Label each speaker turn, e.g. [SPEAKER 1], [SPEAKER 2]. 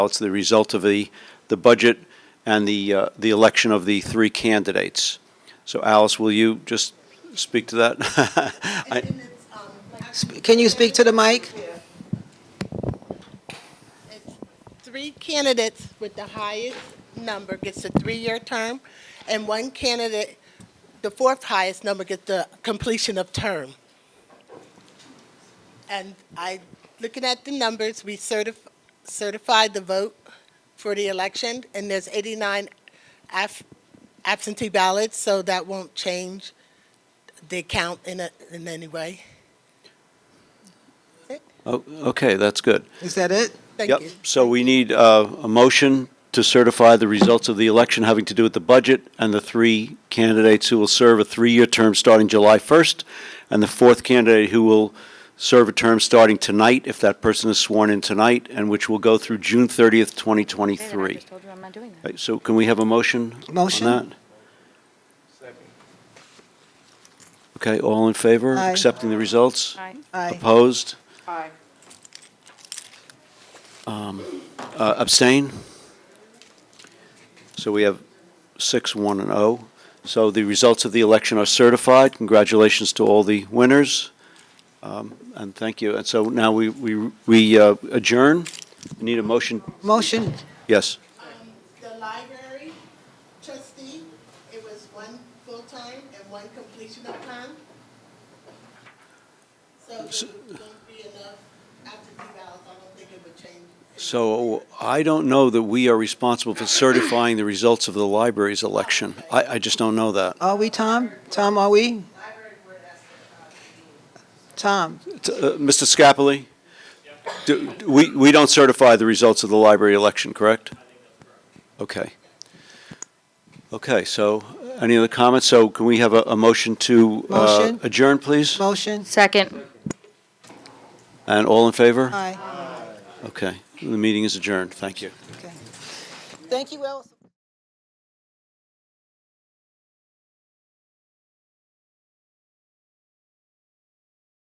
[SPEAKER 1] It's the result of the, the budget and the, uh, the election of the three candidates. So Alice, will you just speak to that? I-
[SPEAKER 2] Sp- Can you speak to the mic?
[SPEAKER 3] Three candidates with the highest number gets a three-year term, and one candidate, the fourth highest number gets the completion of term. And I, looking at the numbers, we certif- certified the vote for the election, and there's 89 af- absentee ballots, so that won't change the count in a, in any way.
[SPEAKER 1] Oh, Okay, that's good.
[SPEAKER 2] Is that it?
[SPEAKER 3] Thank
[SPEAKER 1] Yep,
[SPEAKER 3] you.
[SPEAKER 1] so we need uh, a motion to certify the results of the election having to do with the budget and the three candidates who will serve a three-year term starting July 1st, and the fourth candidate who will serve a term starting tonight, if that person is sworn in tonight, and which will go through June 30th, 2023.
[SPEAKER 4] I just told you I'm not doing that.
[SPEAKER 1] Right, So can we have a motion?
[SPEAKER 2] Motion.
[SPEAKER 1] On that? Okay, all in favor?
[SPEAKER 2] Aye.
[SPEAKER 1] Accepting the results?
[SPEAKER 4] All right.
[SPEAKER 2] Aye.
[SPEAKER 1] Opposed? Aye. Um, uh, Abstain? So we have six, one, and oh. So the results of the election are certified. Congratulations to all the winners. Um, And thank you. And so now we we we uh, adjourn. We Need a motion?
[SPEAKER 2] Motion?
[SPEAKER 1] Yes.
[SPEAKER 3] The library trustee, it was one full-time and one completion of time. So there won't be enough absentee ballots, I don't think it would change.
[SPEAKER 1] So I don't know that we are responsible for certifying the results of the library's election. I, I just don't know that.
[SPEAKER 2] Are we, Tom? Tom, are we?
[SPEAKER 3] I heard where that's.
[SPEAKER 2] Tom?
[SPEAKER 1] T- uh, Mr. Scapoli? Do- do We, we don't certify the results of the library election, correct? Okay. Okay, so any other comments? So can we have a, a motion to uh,
[SPEAKER 2] Motion.
[SPEAKER 1] adjourn, please?
[SPEAKER 2] Motion?
[SPEAKER 4] Second.
[SPEAKER 1] And all in
[SPEAKER 2] Uh,
[SPEAKER 1] favor?
[SPEAKER 2] Aye.
[SPEAKER 1] Okay, the meeting is adjourned. Thank you.
[SPEAKER 2] Okay. Thank you all.